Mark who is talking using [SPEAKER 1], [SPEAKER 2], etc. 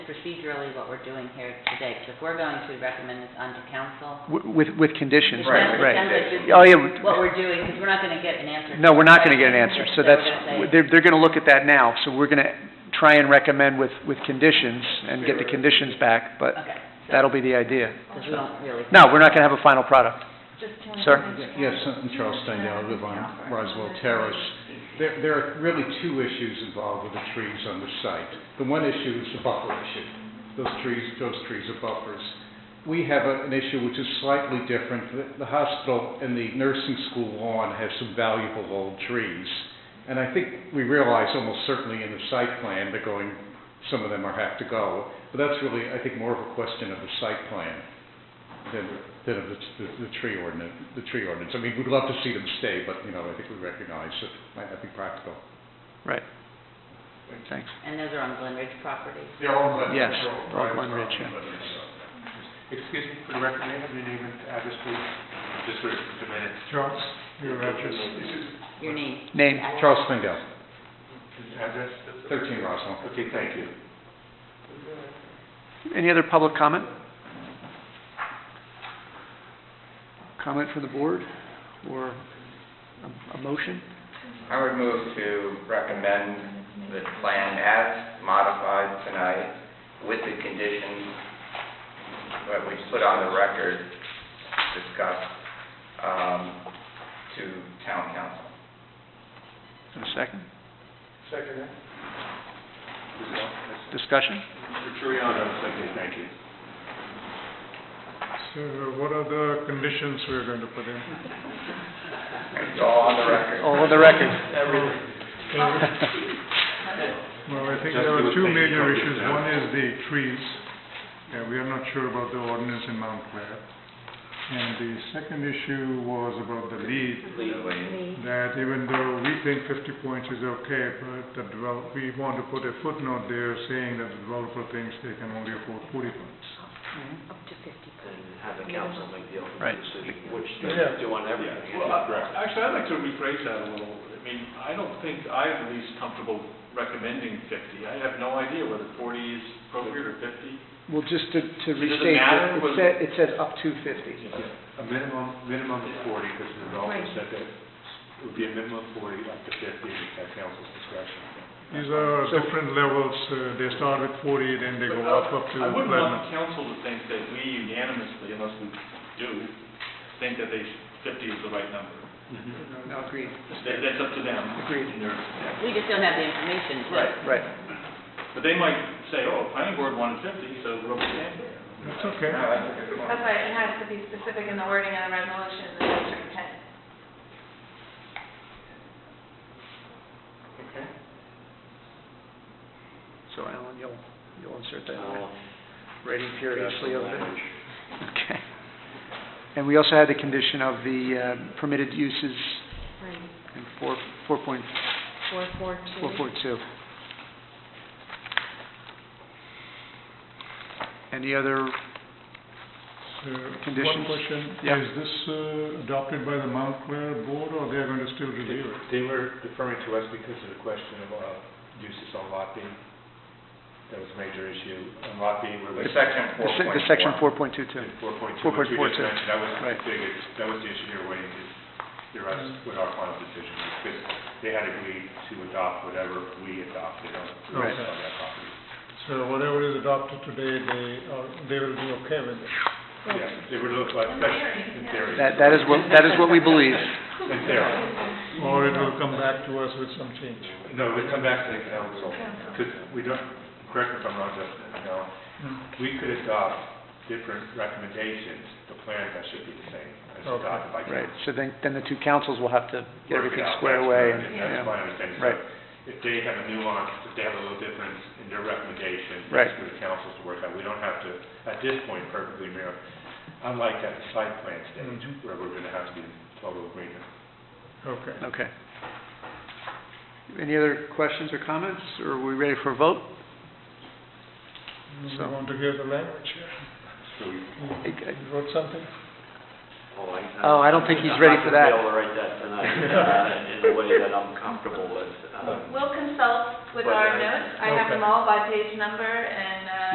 [SPEAKER 1] procedurally what we're doing here today, because if we're going to recommend this onto council.
[SPEAKER 2] Wi- With, with conditions,
[SPEAKER 1] it
[SPEAKER 2] right,
[SPEAKER 1] sounds-
[SPEAKER 2] right.
[SPEAKER 1] It
[SPEAKER 2] Oh,
[SPEAKER 1] sounds
[SPEAKER 2] yeah.
[SPEAKER 1] like just what we're doing, because we're not gonna get an answer.
[SPEAKER 2] No, we're not going to get an answer, so that's,
[SPEAKER 1] we're gonna say,
[SPEAKER 2] they're, they're going to look at that now, so we're going to try and recommend with, with conditions and get the conditions back, but
[SPEAKER 1] Okay. so-
[SPEAKER 2] that'll be the idea.
[SPEAKER 1] Because we don't really.
[SPEAKER 2] No, we're not going to have a final product. Sir?
[SPEAKER 3] Yes, I'm Charles Steindale, I live on Roswell Terrace. There, there are really two issues involved with the trees on the site. The one issue is the buffer issue. Those trees, those trees are buffers. We have a- an issue which is slightly different. The- The hospital and the nursing school lawn have some valuable old trees. And I think we realize almost certainly in the site plan, they're going, some of them are have to go. But that's really, I think, more of a question of the site plan than, than of the, the- the tree ordinance, the tree ordinance. I mean, we'd love to see them stay, but, you know, I think we recognize it might not be practical.
[SPEAKER 2] Right. Thanks.
[SPEAKER 1] And those are on Glen Ridge property.
[SPEAKER 4] They're all Glen Ridge.
[SPEAKER 2] Yes,
[SPEAKER 4] they're all
[SPEAKER 2] all
[SPEAKER 4] private
[SPEAKER 2] Glen Ridge,
[SPEAKER 4] property,
[SPEAKER 2] yeah.
[SPEAKER 4] but it's, uh, Excuse me, for the record, may I have your name and address, please? Just for a minute. Charles, your address.
[SPEAKER 1] Your name?
[SPEAKER 2] Name?
[SPEAKER 4] uh,
[SPEAKER 3] Charles Spindell,
[SPEAKER 4] Address?
[SPEAKER 3] 13 Roswell.
[SPEAKER 4] Okay, thank you.
[SPEAKER 2] Any other public comment? Comment from the board or a- a motion?
[SPEAKER 5] I would move to recommend the plan as modified tonight with the conditions that we put on the record discussed um, to town council.
[SPEAKER 2] And a second?
[SPEAKER 4] Second.
[SPEAKER 2] Discussion?
[SPEAKER 4] Triano, okay, thank you.
[SPEAKER 6] So Uh, what are the conditions we're going to put in?
[SPEAKER 5] It's all on the record.
[SPEAKER 2] All on Oh, the record.
[SPEAKER 6] Well, I think
[SPEAKER 4] Just
[SPEAKER 6] there are
[SPEAKER 4] do it,
[SPEAKER 6] two
[SPEAKER 4] make it
[SPEAKER 6] major
[SPEAKER 4] public
[SPEAKER 6] issues.
[SPEAKER 4] now.
[SPEAKER 6] One is the trees. Yeah, we are not sure about the ordinance in Mount Clair. And the second issue was about the lead,
[SPEAKER 5] Legally.
[SPEAKER 6] that even though we think fifty points is okay, but the develop, we want to put a footnote there saying that the developer thinks they can only afford forty points.
[SPEAKER 7] have the council make the
[SPEAKER 2] Right.
[SPEAKER 7] ultimate decision, which they do on everything.
[SPEAKER 8] Well,
[SPEAKER 4] uh,
[SPEAKER 8] I- actually, I'd like to rephrase that a little. I mean, I don't think I'm at least comfortable recommending 50. I have no idea whether 40 is appropriate or 50.
[SPEAKER 2] Well, just to, to
[SPEAKER 8] restate it, matter it what- said-
[SPEAKER 2] it says up to fifty.
[SPEAKER 4] A minimum, minimum of 40, because the developer said that it would be a minimum of 40, up to 50, at council's discretion.
[SPEAKER 6] These are different levels. Uh, They start with forty, then they go
[SPEAKER 8] But
[SPEAKER 6] up up to
[SPEAKER 8] I wouldn't want the
[SPEAKER 6] platinum.
[SPEAKER 8] council to think that we unanimously, unless we do, think that they, 50 is the right number.
[SPEAKER 2] No, agreed,
[SPEAKER 8] That- That's up to them.
[SPEAKER 2] agreed.
[SPEAKER 8] and their-
[SPEAKER 1] We just don't have the information. so-
[SPEAKER 8] Right,
[SPEAKER 2] Right.
[SPEAKER 8] but they might say, oh, planning board wanted 50, so we're okay there.
[SPEAKER 6] That's okay.
[SPEAKER 5] No, that's a good point.
[SPEAKER 9] That's why it has to be specific in the wording of the resolution, the district intent.
[SPEAKER 4] Okay.
[SPEAKER 2] So Alan, you'll, you'll insert that,
[SPEAKER 7] I'll-
[SPEAKER 2] rating furiously over there.
[SPEAKER 7] language.
[SPEAKER 2] Okay. And we also had the condition of the uh, permitted uses in four, four point,
[SPEAKER 9] Four, four,
[SPEAKER 2] four four two. Any other,
[SPEAKER 6] Uh,
[SPEAKER 2] Conditions?
[SPEAKER 6] One question,
[SPEAKER 2] Yeah.
[SPEAKER 6] is this uh, adopted by the Mount Clair board, or they're going to still review it?
[SPEAKER 4] They were deferring to us because of the question of uh, uses on lot B. That was a major issue. On lot B, where we...
[SPEAKER 5] The section
[SPEAKER 2] the
[SPEAKER 5] four
[SPEAKER 2] se-
[SPEAKER 5] point
[SPEAKER 2] the section
[SPEAKER 5] four.
[SPEAKER 2] four point two two?
[SPEAKER 4] Four point two, which
[SPEAKER 2] 4.42.
[SPEAKER 4] we just mentioned, that was the
[SPEAKER 2] Right.
[SPEAKER 4] biggest, that was the issue they were waiting to hear us
[SPEAKER 6] Mm.
[SPEAKER 4] with our final decision, because they had agreed to adopt whatever we adopted on on
[SPEAKER 2] Right.
[SPEAKER 4] that property.
[SPEAKER 6] So whatever is adopted today, they, are- they will be okay with it?
[SPEAKER 4] Yes, it would look like, in theory.
[SPEAKER 2] That, that is what, that is what we believe.
[SPEAKER 4] In theory.
[SPEAKER 6] Or it will come back to us with some change?
[SPEAKER 4] No, we come back to the council, because we don't, correct me if I'm wrong, Justin, no,
[SPEAKER 6] Mm-hmm.
[SPEAKER 4] we could adopt different recommendations, the plan that should be the same, as
[SPEAKER 6] Okay.
[SPEAKER 4] adopted by
[SPEAKER 2] Right,
[SPEAKER 4] council.
[SPEAKER 2] so then, then the two councils will have to get
[SPEAKER 4] work it
[SPEAKER 2] everything
[SPEAKER 4] out.
[SPEAKER 2] squared
[SPEAKER 4] That's
[SPEAKER 2] away.
[SPEAKER 4] my-
[SPEAKER 2] and,
[SPEAKER 4] That's
[SPEAKER 2] yeah.
[SPEAKER 4] my understanding. So
[SPEAKER 2] Right.
[SPEAKER 4] If they have a nuance, if they have a little difference in their recommendation,
[SPEAKER 2] Right.
[SPEAKER 4] that's for the council to work out. We don't have to, at this point, perfectly mirror, unlike at the site plan stage,
[SPEAKER 6] Mhm.
[SPEAKER 4] where we're going to have to be in total agreement.
[SPEAKER 6] Okay.
[SPEAKER 2] Okay. Any other questions or comments, or are we ready for a vote?
[SPEAKER 6] We
[SPEAKER 2] So-
[SPEAKER 6] Mm-hmm. want to hear the language here.
[SPEAKER 4] So we
[SPEAKER 2] Okay.
[SPEAKER 6] You wrote something?
[SPEAKER 7] Oh,
[SPEAKER 2] Oh, I don't think he's ready for that.
[SPEAKER 7] I'm not going to be able to write that tonight, uh, in a way that I'm comfortable with. um,
[SPEAKER 9] We'll consult with
[SPEAKER 7] But
[SPEAKER 9] our
[SPEAKER 7] I-
[SPEAKER 9] notes, I have them all by page number, and uh,